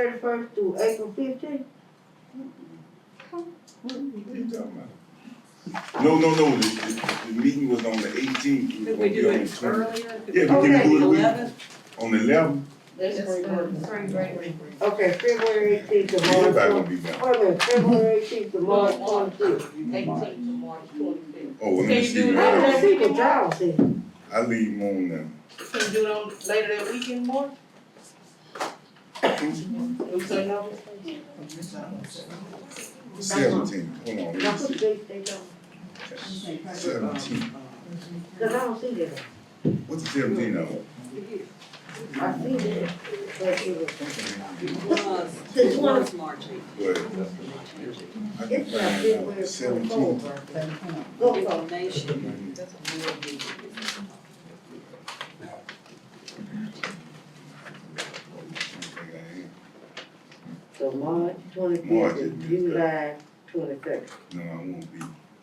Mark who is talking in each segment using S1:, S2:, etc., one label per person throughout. S1: Thirty-first to April fifteenth?
S2: What are you talking about? No, no, no, the, the, the meeting was on the eighteenth.
S3: Could we do it earlier?
S2: Yeah, we
S1: Okay.
S2: can do it
S3: Eleven?
S2: on the eleventh,
S3: That's
S4: Spring break.
S1: Okay, February eighteenth to March
S2: everybody will
S1: twenty.
S2: be down.
S1: Wait a minute, February eighteenth to March
S3: March.
S1: twenty-fifth.
S3: Eighteen to March twenty-fifth.
S2: Oh, let
S3: Can
S2: me
S3: you
S2: see,
S3: do it
S1: How many
S2: I
S3: earlier?
S1: people drive then?
S2: I leave on now.
S3: Can you do it on later that weekend, Mark? Do something else?
S2: seventeen, hold on,
S1: Now
S2: let me
S1: put the
S2: see.
S1: date they don't,
S2: Seventeen,
S1: cause I don't see that.
S2: what's the seventeen of?
S1: I see that, but it was.
S5: The twentieth March.
S2: But I can
S1: It's not
S2: find
S1: February
S2: out, seventeen.
S1: twenty-fourth. Go, go.
S5: Nation.
S1: So March
S2: March
S1: twenty-fifth
S2: is
S1: and July twenty-third.
S2: No, I won't be,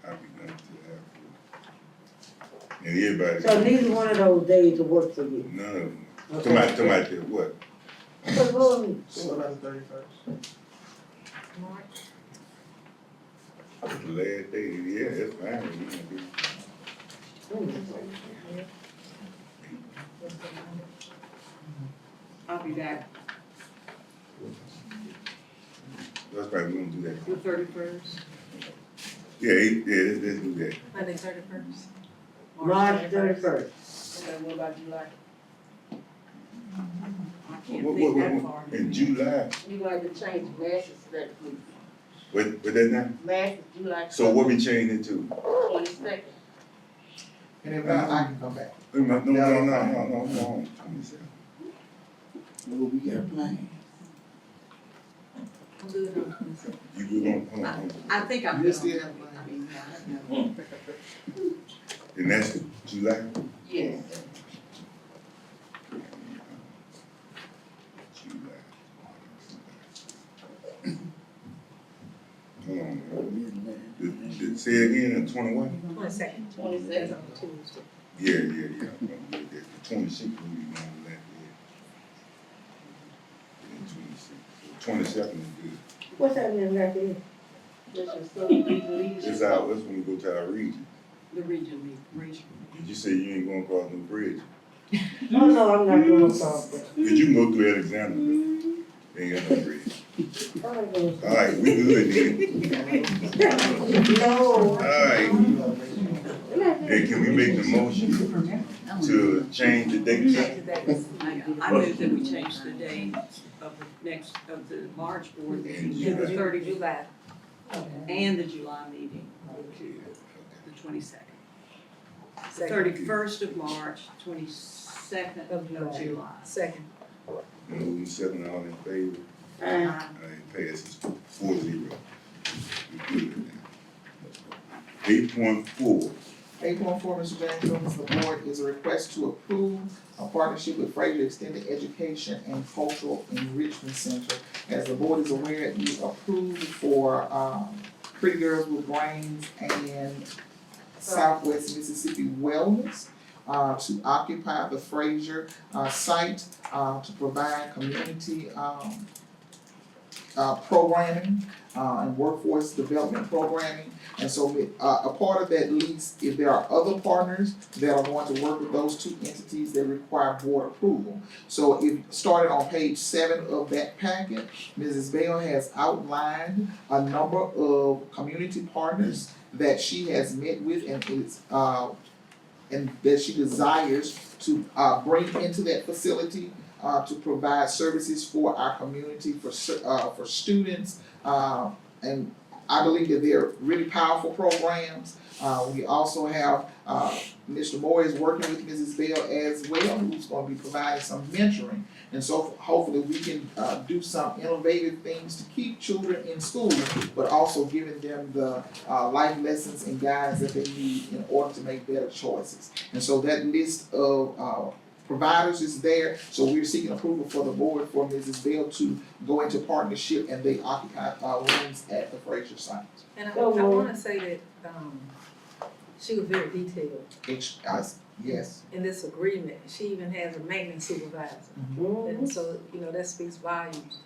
S2: I'll be gone till after. And everybody.
S1: So neither one of those days will work for you.
S2: None of them, come
S1: Okay.
S2: out, come out there, what?
S1: So go and-
S6: So about the thirty-first?
S2: It's the last day, yeah, that's fine, we can do it.
S5: I'll be back
S2: That's right, we don't do that.
S5: the thirty-first.
S2: Yeah, eight, yeah, let's, let's do that.
S4: Monday thirty-first.
S1: March thirty-first.
S3: Okay, what about July?
S5: I
S2: What,
S5: can't
S2: what,
S5: think
S2: what,
S5: that
S2: what,
S5: far.
S2: in July,
S3: You gonna have to change lashes that week.
S2: what, what that now?
S3: Lashes, July.
S2: So what we changing it to?
S3: Twenty-second.
S6: And if not, I can come back.
S2: Wait a minute, no, no, no, no, no, no, twenty-seven.
S7: What we got planned?
S4: I'm good on Wednesday.
S2: You good on, hold on, hold
S5: I think I'm.
S6: You still have money.
S5: I mean, I don't know.
S2: on. and that's the July?
S3: Yes.
S2: July. Hold on,
S7: Midnight.
S2: did, did, say it again, the twenty-one?
S4: Twenty-second. That's
S3: Twenty-second.
S4: on Tuesday.
S2: Yeah, yeah, yeah, I'm gonna do that, the twenty-sixth, we need to know that, yeah. Twenty-sixth, twenty-seventh is good.
S1: What's happening back there?
S3: That's your son, you can leave.
S2: It's out, that's when we go to our region.
S5: The region meet, region.
S2: Did you say you ain't gonna cross no bridge?
S1: Oh, no, I'm not going to solve that.
S2: Did you can go through Alexander? but Ain't got no bridge.
S1: I'm not gonna-
S2: Alright, we good
S1: No.
S2: then. Alright, then can we make the motion to change the date?
S5: I, I move that we change the date of the next, of the March board meeting to the
S2: July.
S5: thirty July and the July meeting, the twenty-second. Thirty-first of March, twenty-second
S4: Of
S5: of
S4: July.
S5: July.
S4: Second.
S2: Moving seven, all in favor,
S1: Uh,
S2: alright, passes four zero. We good now. Eight point four,
S6: Eight point four, Mr. James Jones, the board is a request to approve a partnership with Fraser Extended Education and Cultural Enrichment Center. As the board is aware, we approved for, um, Pretty Girls with Brains and Southwest Mississippi Wellness, uh, to occupy the Fraser, uh, site, uh, to provide community, um, uh, programming, uh, and workforce development programming and so, we- uh, a part of that lease, if there are other partners that are going to work with those two entities, they require board approval. So if, starting on page seven of that packet, Mrs. Bell has outlined a number of community partners that she has met with and is, uh, and that she desires to, uh, bring into that facility, uh, to provide services for our community, for, cer- uh, for students, uh, and I believe that they're really powerful programs. Uh, we also have, uh, Mr. Moore is working with Mrs. Bell as well, who's gonna be providing some mentoring. And so hopefully we can, uh, do some innovative things to keep children in school, but also giving them the, uh, life lessons and guidance that they need in order to make better choices. And so that list of, uh, providers is there, so we're seeking approval for the board for Mrs. Bell to go into partnership and they occupy uh rooms at the Fraser site.
S4: And I, I
S1: So moved.
S4: wanna say that, um, she was very detailed
S6: It's, uh, yes,
S4: in this agreement. She even has a maintenance supervisor.
S6: Mm-hmm.
S1: mhm.
S4: And so, you know, that speaks volumes